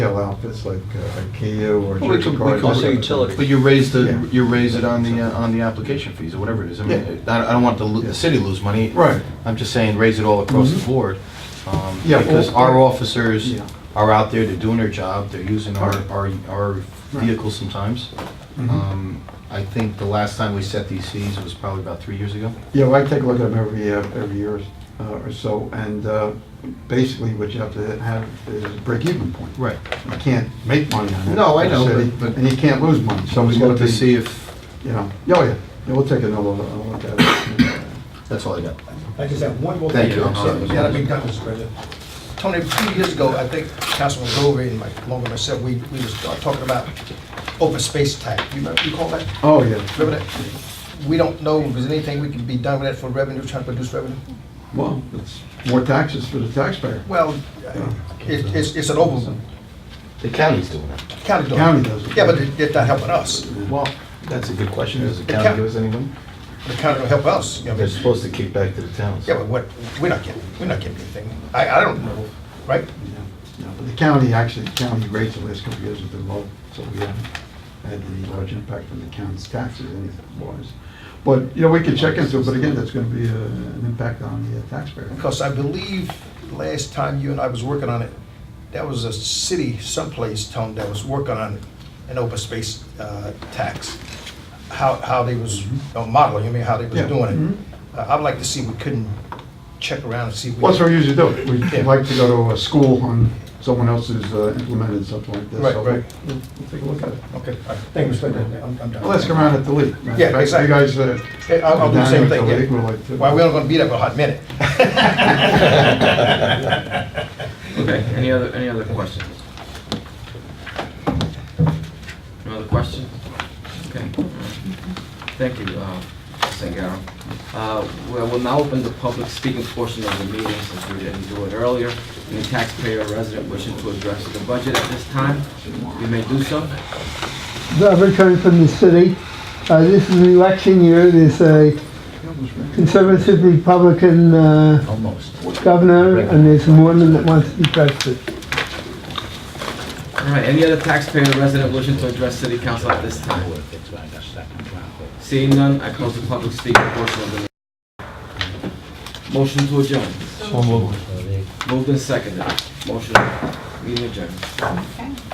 outfits like uh, IKEA or Well, we Church could- we Card. could Also say utilities. But you raise Yeah. the, you raise it on the, uh, on the application fees or whatever it is. I mean, I I don't want the lo- the city to lose money. Right. I'm just saying, raise it all across the Mhm. board. um, Yeah, Because all- our officers Yeah. are out there, they're doing their job, they're using our, Right. our, our vehicles sometimes. Mhm. Um, I think the last time we set these fees was probably about three years ago. Yeah, well, I take a look at them every, uh, every year uh, or so, and uh, basically what you have to have is a break-even point. Right. You can't make money on it. No, I know, as a city, but- but- And you can't lose money, so I it's was got going to to see be, if, you know, yeah, oh, yeah, Yeah, we'll take another look I'll look at it. that's all I got. I just have one more thing. Thank you. to say. Yeah, I mean, that was great. Tony, a few years ago, I think Councilman Dover and Mike Logan myself, we, we was talking about open space tax. You remember, you call that? Oh, yeah. Remember that? We don't know if there's anything we can be done with that for revenue, trying to produce revenue. Well, it's more taxes for the taxpayer. Well, uh, it, it's, it's an over, The county's doing it. county does. County does it. Yeah, but it- it's not helping us. Well, that's a good question. Does the The county coun- give us any money? The county don't help us. you know, They're supposed to kick back to the towns. Yeah, but what, we're not getting, we're not getting anything. I, I don't know, right? Yeah, yeah, but the county, actually, the county rates the last couple of years have been low, so we haven't had any large impact on the county's taxes anything-wise. But, you know, we could check into it, but again, that's gonna be uh, an impact on the uh, taxpayer. Because I believe last time you and I was working on it, that was a city someplace, Tone, that was working on an open space uh, tax. How, how they was uh, modeling, I mean, how they was Yeah, Mm-hmm. doing it. Uh, I'd like to see, we couldn't check around and see. if we- What's we usually do? We Yeah. like to go to a school on someone else's uh, implemented something like this. Right, so right. We'll we'll take a look at it. Okay, all right, thank you, Mr. President. I'm- I'm done. Well, ask around at the league. Yeah, Back- exactly. You guys. uh, Hey, I'll I'll do the same down at thing, the league, we'll like yeah. to- Well, we're not gonna be there for a hot minute. Okay, any other, any other questions? No other questions? Okay. all right. Thank you, uh, Sangaro. Uh, Well, we'll now open the public speaking portion of the meeting since we didn't do it earlier. Any taxpayer or resident wishing to address the budget at this time, you may do so. I've returned from the city. Uh, This is an election year. There's a conservative Republican uh, Almost. governor, and there's a woman that wants to be president. All right, any other taxpayer or resident wishing to address city council at this time? Seeing none, I close the public speaking portion of the meeting. Motion to adjourn. Moved and seconded. Motion, meeting adjourned.